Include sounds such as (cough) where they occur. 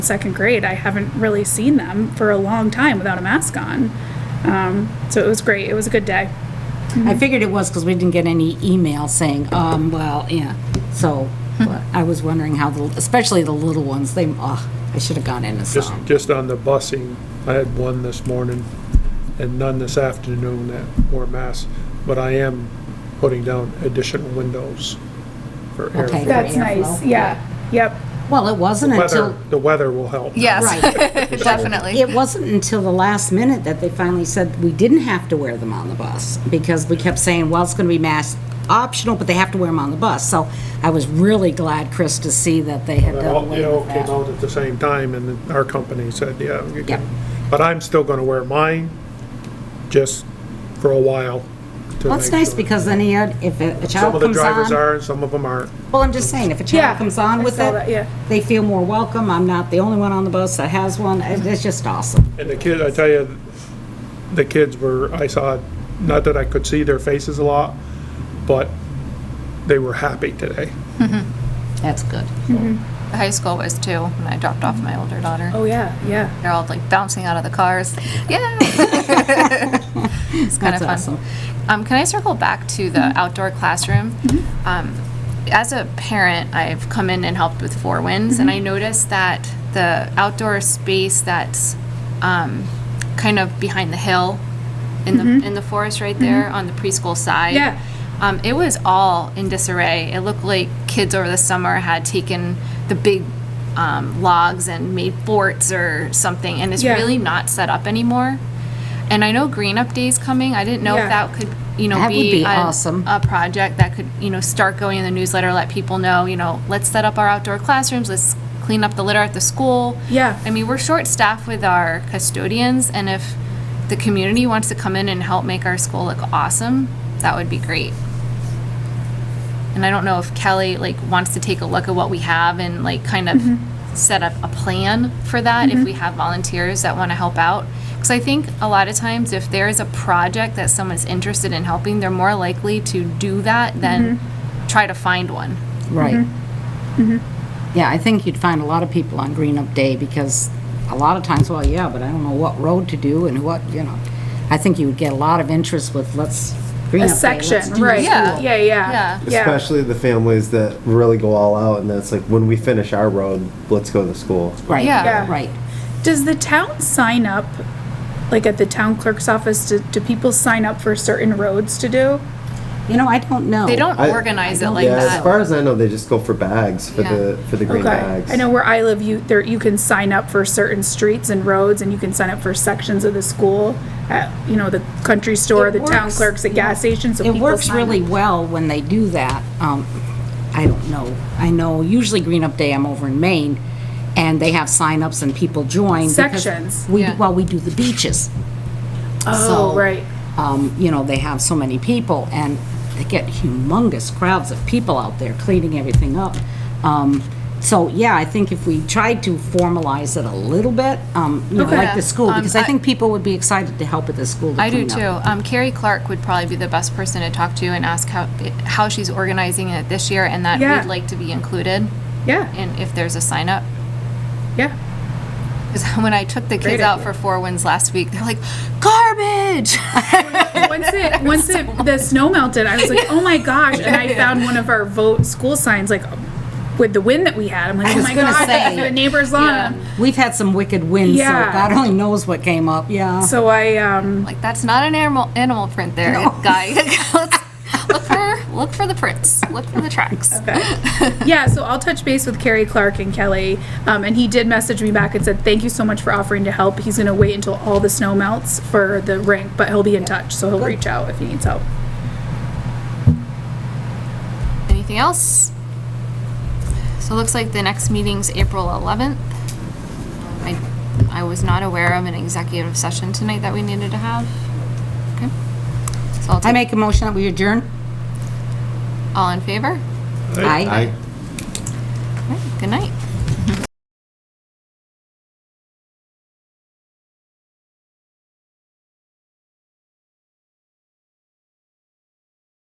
second grade, I haven't really seen them for a long time without a mask on. Um, so it was great. It was a good day. I figured it was because we didn't get any email saying, um, well, yeah, so, Hmm. but I was wondering how the, especially the little ones, they, oh, I should have gone in and saw Just, 'em. just on the busing, I had one this morning and none this afternoon that wore masks, but I am putting down additional windows for Okay. airflow. That's nice. Airflow. Yeah. Yep. Well, it wasn't Weather, until, the weather will help. Right. (laughs) Yes, (laughs) definitely. it wasn't until the last minute that they finally said we didn't have to wear them on the bus, because we kept saying, well, it's going to be mask optional, but they have to wear them on the bus. So I was really glad, Chris, to see that they had That done all, away they all with came that. out at the same time and then our company said, yeah. you Yep. can. But I'm still gonna wear mine, just for a while. to Well, it's make nice sure. because then he had- if a a Some child of the comes drivers on. are and some of them aren't. Well, I'm just saying, if a Yeah, child comes on I with saw that, yeah. it, they feel more welcome. I'm not the only one on the bus that has one. It- It's just awesome. And the kid, I tell you, the kids were, I saw, not that I could see their faces a lot, but they were happy today. That's good. Mm-hmm. The High school was too, when I dropped off my older daughter. Oh yeah. Yeah. They're all like bouncing out of (laughs) the cars. Yeah. It's kind That's of awesome. Mm-hmm. fun. Um, Can I circle back to the outdoor classroom? Um, As a parent, I've come in and helped with Four Winds, Mm-hmm. and I noticed that the outdoor space that's um, kind of behind the hill in the, in the forest right there on the preschool side. Mm-hmm. Yeah. Um, it was all in disarray. It looked like kids over the summer had taken the big um, logs and made forts or something, and it's Yeah. really not set up anymore. And I know Green Up Day's coming. I didn't know Yeah. if that could, you know, That would be a- awesome. a project that could, you know, start going in the newsletter, let people know, you know, let's set up our outdoor classrooms, let's clean up the litter at the school. Yeah. I mean, we're short-staffed with our custodians, and if the community wants to come in and help make our school look awesome, that would be great. And I don't know if Kelly, like, wants to take a look at what we have and, like, kind of set up a plan for that, if we have volunteers that want to help out. Because I think a lot of times, if there is a project that someone's interested in helping, they're more likely to do that than try to find one. Right. Mm-hmm. Yeah, I think you'd find a lot of people on Green Up Day because a lot of times, well, yeah, but I don't know what road to do and what, you know. I think you would get a lot of interest with, let's, Green A Up Day, let's section. do Right. this. Yeah. Yeah. Yeah. Yeah. Especially the families that really go all out, and that's like when we finish our road, let's go to school. Right, Yeah. right. Does the town sign up, like at the town clerk's office, do, do people sign up for certain roads to do? You know, I don't know. They don't Oh, I- organize it don't like Yeah, as that. far as I know, they just go for bags for Yeah. the for the green Okay. bags. I know where I live, you, there, you can sign up for certain streets and roads and you can sign up for sections of the school. At, you know, the country store, It the town works, clerks, the gas station, so It people works sign up. really well when they do that. Um, I don't know. I know usually Green Up Day, I'm over in Maine, and they have signups and people join. because Sections, We, yeah. well, we do the beaches. Oh, So, right. Um, you know, they have so many people, and they get humongous crowds of people out there cleaning everything up. Um, so, yeah, I think if we tried to formalize it a little bit, um, you know, Okay. like the school, Um, because I I- think people would be excited to help at the school to I do clean up. too. Um, Carrie Clark would probably be the best person to talk to and ask how, how she's organizing it this year and that Yeah. we'd like to be included Yeah, and if there's a sign up. yeah. Because (laughs) when I took the Great kids out idea. for four wins last week, they're like, garbage! (laughs) Once it, once it, the snow melted, I was like, oh my gosh, and I found one of our vote school signs, like, with the wind that we had, I'm like, oh was my gonna gosh, say. the neighbor's lawn. We've had some wicked winds, so Yeah. God only knows what came up, yeah. So I, um, like, that's not an animal, animal print there, (laughs) guy. Let's look for, look for the prints, look for the tracks. yeah, so I'll touch base with Carrie Clark and Kelly. Um, and he did message me back and said, thank you so much for offering to help. He's going to wait until all the snow melts for the rink, but he'll be in touch. So he'll reach out if he needs help. Anything else? So it looks like the next meeting's April 11th. I, I was not aware of an executive session tonight that we needed to have. Okay. So I'll I take, make a motion that we adjourn. all in favor? Aye. I All right, Good night.